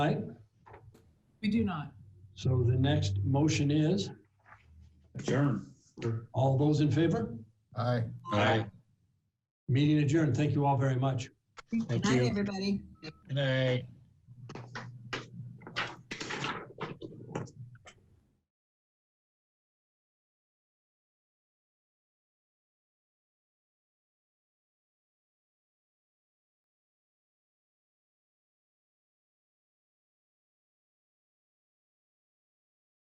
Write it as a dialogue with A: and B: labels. A: Aye.
B: We do not.
A: So the next motion is,
C: Adjourn.
A: all those in favor?
D: Aye.
C: Aye.
A: Meeting adjourned. Thank you all very much.
B: Good
D: Thank
B: night,
D: you.
B: everybody.
D: Good night.